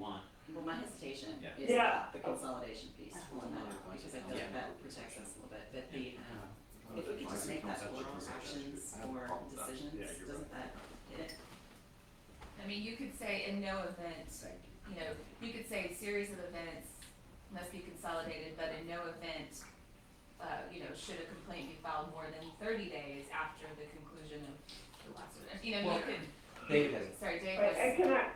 Well, my hesitation Yeah. is Yeah. the consolidation piece on that, because I feel like that protects us a little bit, but the, um, if we could just make that oral actions or decisions, Yeah, you're doesn't that hit it? I mean, you could say in no event, you know, you could say series of events must be consolidated, but in no event, uh, you know, should a complaint be filed more than thirty days after the conclusion of the last event, you know, Well- you could, David has, sorry, Dave But I was, can I,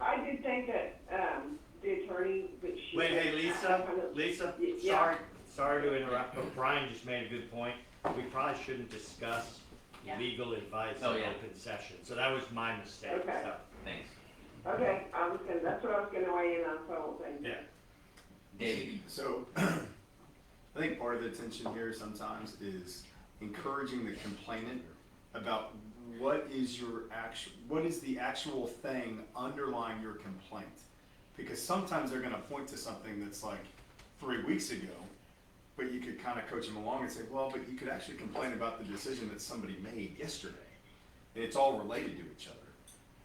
I did think that, um, the attorney, but she. Wait, hey, Lisa, Lisa, Y- yeah. sorry, sorry to interrupt, but Brian just made a good point. We probably shouldn't discuss Yeah. legal advice in Oh, yeah. open session, so that was my mistake, Okay. so. Thanks. Okay, I was gonna, that's what I was gonna weigh in on, so I won't say. Yeah. David, So, I think part of the tension here sometimes is encouraging the complainant about what is your actual, what is the actual thing underlying your complaint? Because sometimes they're gonna point to something that's like three weeks ago, but you could kind of coach them along and say, well, but you could actually complain about the decision that somebody made yesterday. And it's all related to each other.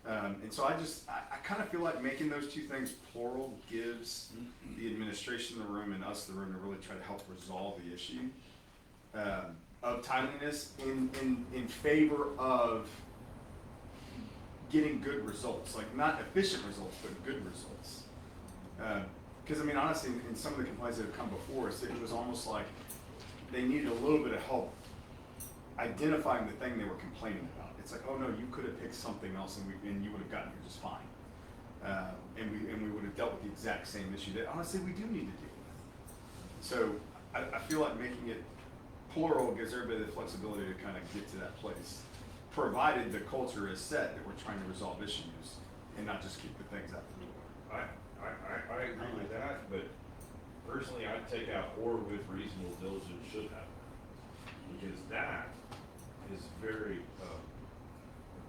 Um, and so I just, I, I kind of feel like making those two things plural gives the administration the room and us the room to really try to help resolve the issue um, of timeliness in, in, in favor of getting good results, like not efficient results, but good results. Because I mean, honestly, in, in some of the complaints that have come before us, it was almost like they needed a little bit of help identifying the thing they were complaining about. It's like, oh no, you could have picked something else and, we, and you would have gotten here just fine. Uh, and we and we would have dealt with the exact same issue that honestly we do need to deal with. So I, I feel like making it plural gives everybody the flexibility to kind of get to that place, provided the culture is set that we're trying to resolve issues and not just kick the things out the door. I, I, I, I agree with that, but personally, I'd take out or with reasonable diligence should have. Because that is very, um,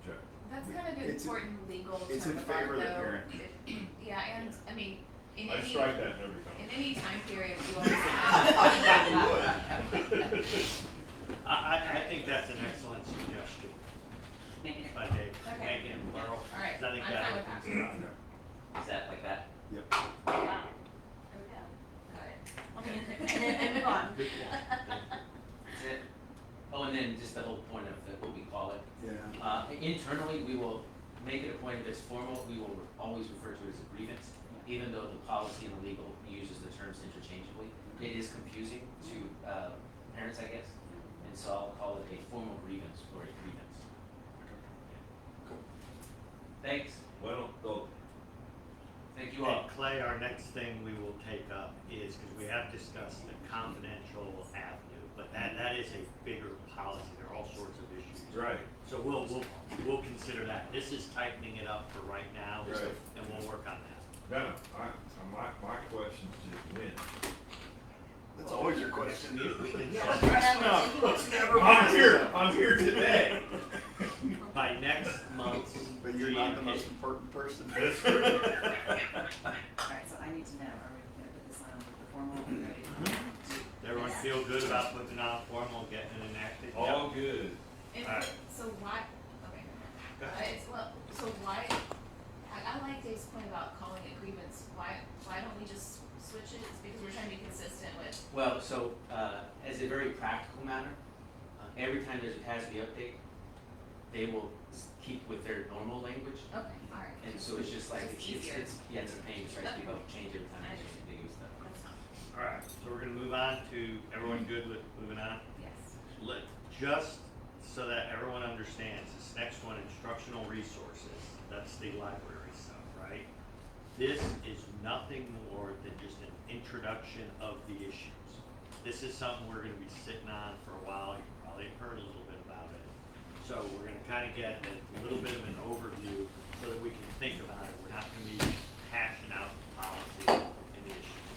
objective. that's kind of an It's in- important legal term it's in of art, favor of the though. parent. Yeah, and, I mean, in I any, strike that in every in comment. any time period, you always have. I, I, I think that's an excellent suggestion Make it- by Dave, Okay. make it plural. All right, I think I'm that fine with opens that. it up. is that like that? Got it. And then, and move on. Good point. Is it? Oh, and then just the whole point of the, what we call it. Yeah. Uh, internally, we will make it a point if it's formal, we will always refer to it as a grievance, even though the policy and the legal uses the terms interchangeably. It is confusing to, uh, parents, I guess, and so I'll call it a formal grievance or a grievance. Cool. Thanks, Well, oh, though, thank you all. And Clay, our next thing we will take up is, because we have discussed the confidential avenue, but that, that is a bigger policy, there are all sorts of issues. right, So we'll, we'll, we'll consider that. This is tightening it up for right now, Right. and we'll work on that. no, no, I, I- my, my question is just when. That's always your question. We can That's set not- I'm here, I'm here today. By next month's. But you're not the most GMP. important person. That's right. All right, so I need to know, are we gonna put this on the formal, are we ready? Everyone feel good about putting out formal, getting it enacted? All good. And Alright. so why, okay, Uh, it's, well, so why, I, I like Dave's point about calling it grievance, why, why don't we just switch it, it's because we're trying to be consistent with, Well, so, uh, as a very practical matter, uh, every time there's a TASB update, they will s- keep with their normal language, okay, alright. and so it's just like, It's it's, easier. it's, yeah, it's a pain, it's right, people change every time, it's just ambiguous stuff. All right, so we're gonna move on to, everyone good with moving on? Yes. Let, just so that everyone understands, this next one, instructional resources, that's the library stuff, right? This is nothing more than just an introduction of the issues. This is something we're gonna be sitting on for a while, you probably heard a little bit about it. So we're gonna kinda get a little bit of an overview so that we can think about it, we're not gonna be hashing out the policy and the issues.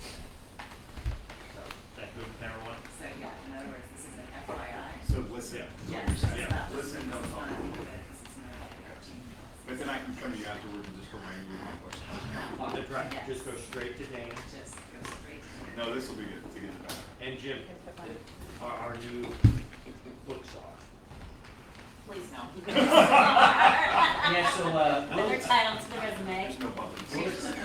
So, is that good with everyone? So, yeah, in other words, this is an FYI. So listen. Yeah. Yes, this is Yeah. not, this is Listen, not, this is don't talk. not, this But then I can come to you afterwards and just remind you of my question. On the track, Yes. just go straight to is Dan not, just go straight to. No, this will be good to get it back. and Jim, our, our new book czar. Please no. Yeah, so, uh, we'll- title to the resume. There's no bubbles.